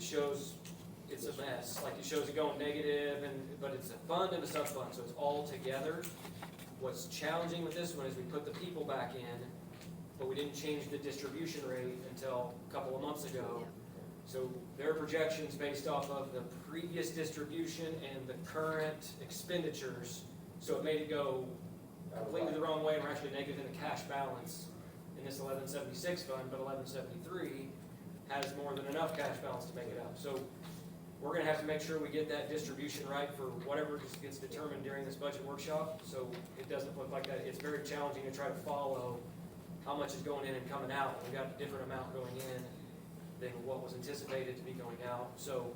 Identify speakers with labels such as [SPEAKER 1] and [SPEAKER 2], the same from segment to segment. [SPEAKER 1] shows, it's a mess, like it shows it going negative and, but it's a fund and a sub-fund, so it's all together. What's challenging with this one is we put the people back in, but we didn't change the distribution rate until a couple of months ago. So their projections based off of the previous distribution and the current expenditures, so it made it go completely the wrong way, and we're actually negative in the cash balance in this eleven seventy-six fund, but eleven seventy-three has more than enough cash balance to make it up. So we're gonna have to make sure we get that distribution right for whatever just gets determined during this budget workshop, so it doesn't look like that. It's very challenging to try to follow how much is going in and coming out. We got a different amount going in than what was anticipated to be going out, so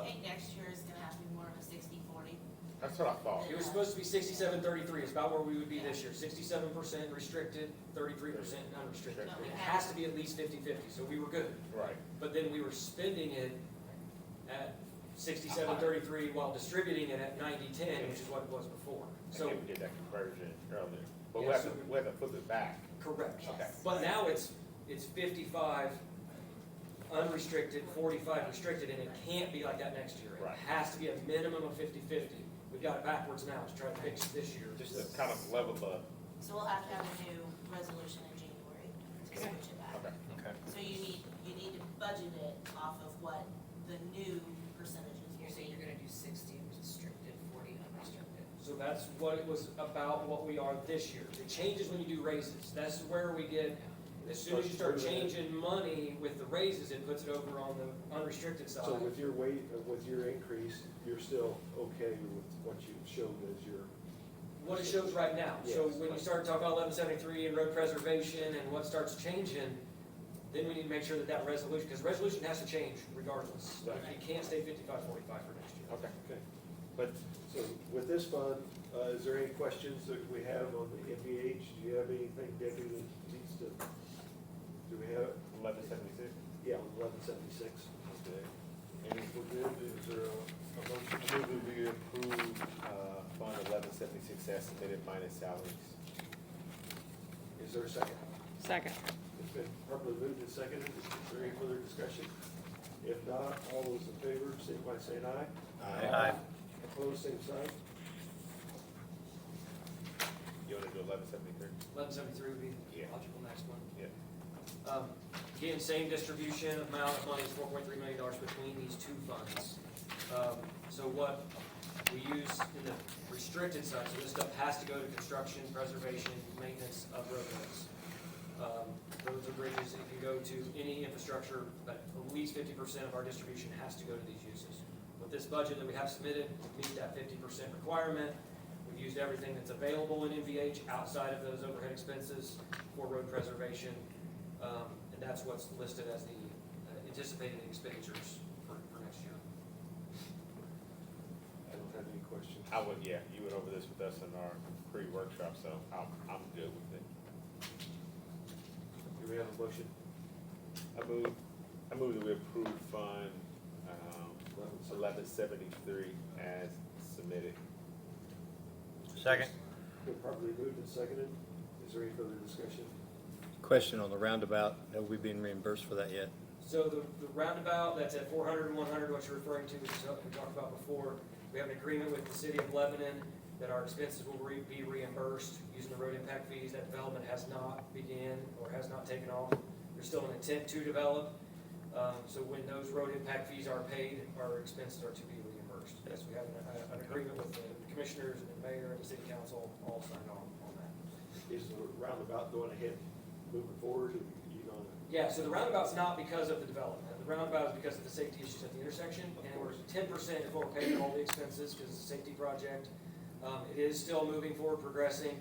[SPEAKER 2] I think next year is gonna have to be more of a sixty forty.
[SPEAKER 3] That's what I thought.
[SPEAKER 1] It was supposed to be sixty-seven, thirty-three, it's about where we would be this year, sixty-seven percent restricted, thirty-three percent unrestricted.
[SPEAKER 2] No, we
[SPEAKER 1] It
[SPEAKER 2] have-
[SPEAKER 1] has to be at least 50-50. so we were good,
[SPEAKER 3] Right.
[SPEAKER 1] but then we were spending it at sixty-seven, thirty-three while distributing it at ninety-ten, which is what it was before.
[SPEAKER 3] I
[SPEAKER 1] So,
[SPEAKER 3] think we did that conversion earlier, but we
[SPEAKER 1] Yeah,
[SPEAKER 3] have to,
[SPEAKER 1] so we-
[SPEAKER 3] we have to flip it back.
[SPEAKER 1] correct,
[SPEAKER 2] Yes.
[SPEAKER 1] but now it's, it's fifty-five unrestricted, forty-five restricted, and it can't be like that next year.
[SPEAKER 3] Right.
[SPEAKER 1] It has to be a minimum of 50-50. we've got it backwards now to try to fix it this year.
[SPEAKER 3] Just to kind of level the,
[SPEAKER 2] So we'll have to have a new resolution in January to switch it back.
[SPEAKER 3] okay.
[SPEAKER 2] So you need, you need to budget it off of what the new percentages
[SPEAKER 4] You're
[SPEAKER 2] will
[SPEAKER 4] saying
[SPEAKER 2] be.
[SPEAKER 4] you're gonna do sixty restricted, forty unrestricted.
[SPEAKER 1] So that's what it was about, what we are this year. It changes when you do raises. That's where we get, as soon as you start changing money with the raises, it puts it over on the unrestricted side.
[SPEAKER 5] So with your weight, uh, with your increase, you're still okay with what you've shown as your,
[SPEAKER 1] What it shows right now. So when you start talking about eleven seventy-three and road preservation and what starts changing, then we need to make sure that that resolution, because resolution has to change regardless. It can't stay fifty-five, forty-five for next year.
[SPEAKER 3] Okay.
[SPEAKER 5] okay.
[SPEAKER 3] But
[SPEAKER 5] So with this fund, uh, is there any questions that we have on the MVH? Do you have anything, Debbie, that needs to, do we have,
[SPEAKER 3] eleven seventy-six,
[SPEAKER 5] yeah, eleven seventy-six? And if we're good, is there a, a motion?
[SPEAKER 3] I move that we approve, uh, fund eleven seventy-six as submitted minus salaries.
[SPEAKER 5] Is there a second?
[SPEAKER 6] Second.
[SPEAKER 5] It's been properly moved and seconded. Is there any further discussion? If not, all those in favor, signify by saying aye.
[SPEAKER 3] Uh,
[SPEAKER 5] Opposed, same sign.
[SPEAKER 3] You wanna do eleven seventy-three?
[SPEAKER 1] Eleven seventy-three would be
[SPEAKER 3] Yeah.
[SPEAKER 1] the logical next one.
[SPEAKER 3] Yeah.
[SPEAKER 1] Um, Again, same distribution amount of money, four point three million dollars between these two funds. Um, So what we use in the restricted side, so this stuff has to go to construction, preservation, maintenance of roadways. Um, Roads or bridges, it can go to any infrastructure, but at least fifty percent of our distribution has to go to these uses. With this budget that we have submitted, we meet that fifty percent requirement. We've used everything that's available in NVH outside of those overhead expenses for road preservation. Um, and that's what's listed as the uh, anticipated expenditures for, for next year.
[SPEAKER 5] I don't have any questions.
[SPEAKER 3] I would, yeah, you went over this with us in our pre-workshop, so I'm, I'm good with it.
[SPEAKER 5] Do we have a motion?
[SPEAKER 3] I move, I move that we approve fund, um, eleven seventy-three as submitted.
[SPEAKER 7] Second.
[SPEAKER 5] Been properly moved and seconded. Is there any further discussion?
[SPEAKER 7] Question on the roundabout, have we been reimbursed for that yet?
[SPEAKER 1] So the, the roundabout that's at 400 and 100, what you're referring to, which is what we talked about before, we have an agreement with the city of Lebanon that our expenses will re- be reimbursed using the road impact fees. That development has not began or has not taken off. There's still an intent to develop. Um, so when those road impact fees are paid, our expenses are to be reimbursed. Yes, we have an, uh, an agreement with the commissioners and the mayor and the city council all signed on on that.
[SPEAKER 5] Is the roundabout going ahead, moving forward, and you gonna,
[SPEAKER 1] Yeah, so the roundabout's not because of the development. The roundabout is because of the safety issues at the intersection. And we're ten percent of what we're paying all the expenses because it's a safety project. Um, it is still moving forward, progressing.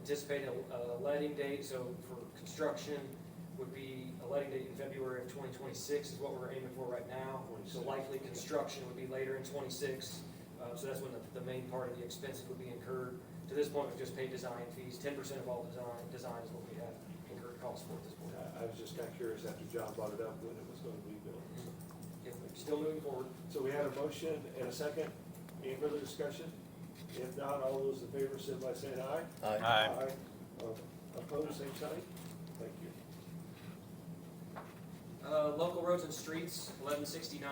[SPEAKER 1] Anticipate a, a letting date, so for construction would be a letting date in February of twenty twenty-six is what we're aiming for right now. So likely construction would be later in twenty-six. Uh, so that's when the, the main part of the expenses would be incurred. To this point, we've just paid design fees. Ten percent of all design, design is what we have incurred costs for at this point.
[SPEAKER 5] uh, I- I was just kinda curious after John brought it up when it was gonna be built.
[SPEAKER 1] If we're still moving forward,
[SPEAKER 5] So we had a motion and a second. Any further discussion? If not, all those in favor, signify by saying aye. Aye. Uh, Opposed, same sign. Thank you.
[SPEAKER 1] uh, local roads and streets, eleven sixty-nine